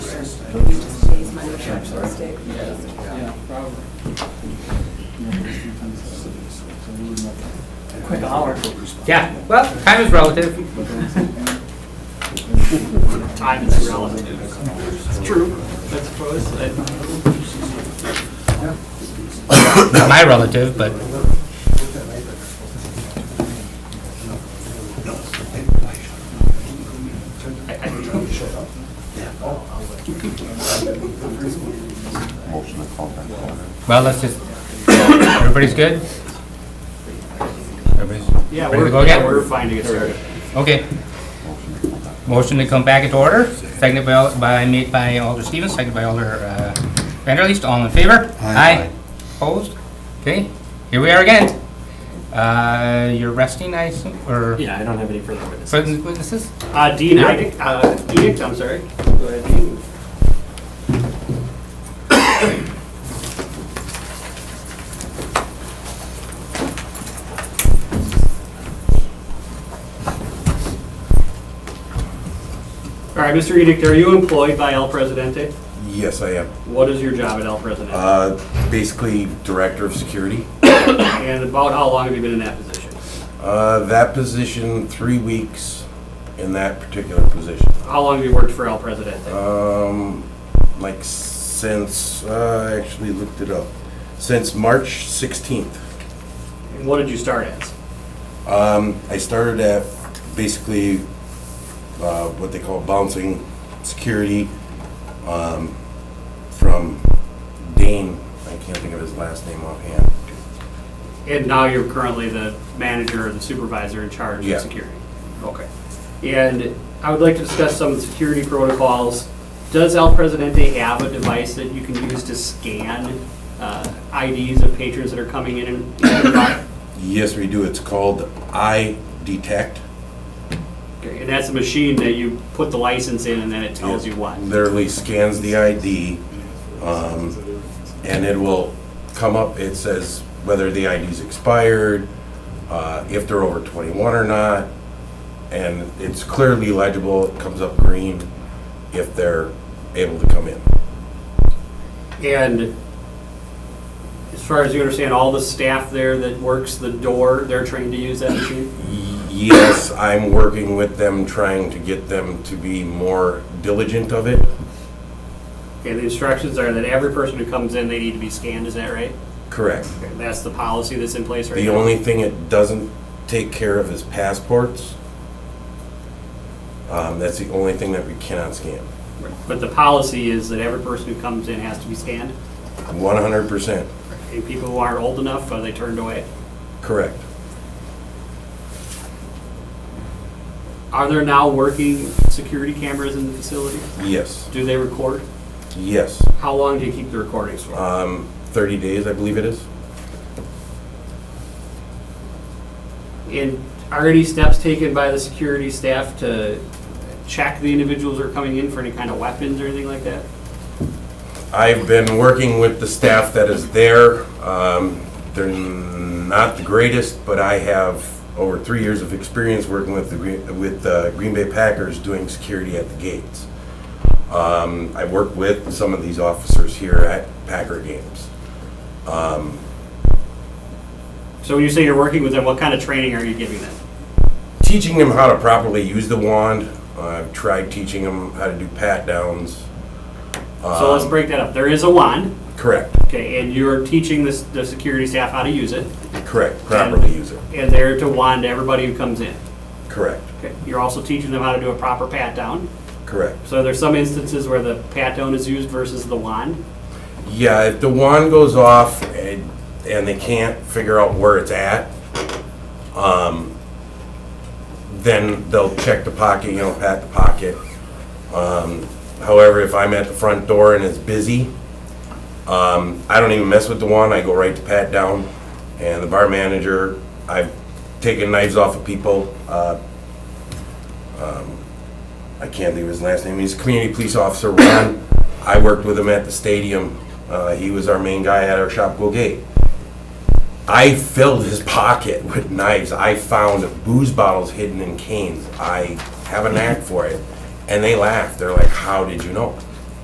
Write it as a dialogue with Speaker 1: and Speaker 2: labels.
Speaker 1: structure, I'm sorry.
Speaker 2: Mistake.
Speaker 1: Yeah, probably. A Quick hour.
Speaker 3: Yeah, well, time is relative.
Speaker 4: Time is relative. It's true, I suppose.
Speaker 3: Not my relative, but
Speaker 5: Motion to call back order.
Speaker 3: Well, let's just, everybody's good? Everybody's
Speaker 4: Yeah,
Speaker 3: ready to
Speaker 4: we're,
Speaker 3: go
Speaker 4: yeah, we're
Speaker 3: again?
Speaker 4: fine to get started.
Speaker 3: Okay,
Speaker 5: Motion to call back.
Speaker 3: motion to come back into order, seconded by, Al- by, made by Alder Stevens, seconded by Alder uh, Vanderleest, all in favor?
Speaker 5: Aye.
Speaker 3: Opposed? Okay, here we are again. Uh, You're resting, I assume, or
Speaker 4: Yeah, I don't have any further witnesses.
Speaker 3: present witnesses?
Speaker 4: Uh, Dean Edict, uh, Edict, I'm sorry. Go ahead, Dean. All right, Mr. Edict, are you employed by El Presidente?
Speaker 6: Yes, I am.
Speaker 4: What is your job at El Presidente?
Speaker 6: Uh, Basically, director of security.
Speaker 4: And about how long have you been in that position?
Speaker 6: Uh, That position, three weeks in that particular position.
Speaker 4: How long have you worked for El Presidente?
Speaker 6: Um, Like since, uh, I actually looked it up, since March 16th.
Speaker 4: And what did you start as?
Speaker 6: Um, I started at basically uh, what they call bouncing security um, from Dane, I can't think of his last name offhand.
Speaker 4: And now you're currently the manager or the supervisor in charge
Speaker 6: Yeah.
Speaker 4: of security? Okay. And I would like to discuss some of the security protocols. Does El Presidente have a device that you can use to scan uh, IDs of patrons that are coming in and out?
Speaker 6: Yes, we do. It's called I Detect.
Speaker 4: And that's a machine that you put the license in and then it tells you what?
Speaker 6: Literally scans the ID, um, and it will come up, it says whether the ID's expired, uh, if they're over 21 or not, and it's clearly legible, it comes up green if they're able to come in.
Speaker 4: And as far as you understand, all the staff there that works the door, they're trained to use that machine?
Speaker 6: Yes, I'm working with them, trying to get them to be more diligent of it.
Speaker 4: Okay, the instructions are that every person who comes in, they need to be scanned, is that right?
Speaker 6: Correct.
Speaker 4: Okay, That's the policy that's in place right now?
Speaker 6: The only thing it doesn't take care of is passports. Um, that's the only thing that we cannot scan.
Speaker 4: But the policy is that every person who comes in has to be scanned?
Speaker 6: One hundred percent,
Speaker 4: And people who aren't old enough, are they turned away?
Speaker 6: correct.
Speaker 4: Are there now working security cameras in the facility?
Speaker 6: Yes,
Speaker 4: Do they record?
Speaker 6: yes.
Speaker 4: How long do you keep the recordings for?
Speaker 6: Um, thirty days, I believe it is.
Speaker 4: And are any steps taken by the security staff to check the individuals who are coming in for any kind of weapons or anything like that?
Speaker 6: I've been working with the staff that is there. Um, they're not the greatest, but I have over three years of experience working with the, Green- with the Green Bay Packers doing security at the gates. Um, I work with some of these officers here at Packer games.
Speaker 4: So when you say you're working with them, what kind of training are you giving them?
Speaker 6: Teaching them how to properly use the wand. I've tried teaching them how to do pat downs.
Speaker 4: So
Speaker 6: Um.
Speaker 4: let's break that up. There is a wand,
Speaker 6: Correct,
Speaker 4: okay, and you're teaching the, the security staff how to use it,
Speaker 6: correct, properly use it.
Speaker 4: and they're to wand everybody who comes in.
Speaker 6: Correct,
Speaker 4: Okay, you're also teaching them how to do a proper pat down.
Speaker 6: correct.
Speaker 4: So there's some instances where the pat down is used versus the wand.
Speaker 6: Yeah, if the wand goes off and, and they can't figure out where it's at, um, then they'll check the pocket, you know, pat the pocket. Um, however, if I'm at the front door and it's busy, um, I don't even mess with the wand, I go right to pat down. And the bar manager, I've taken knives off of people, uh, I can't think of his last name. He's a community police officer, Ron. I worked with him at the stadium. Uh, he was our main guy at our shop, Go Gate. I filled his pocket with knives. I found booze bottles hidden in canes. I have a knack for it. And they laugh. They're like, How did you know?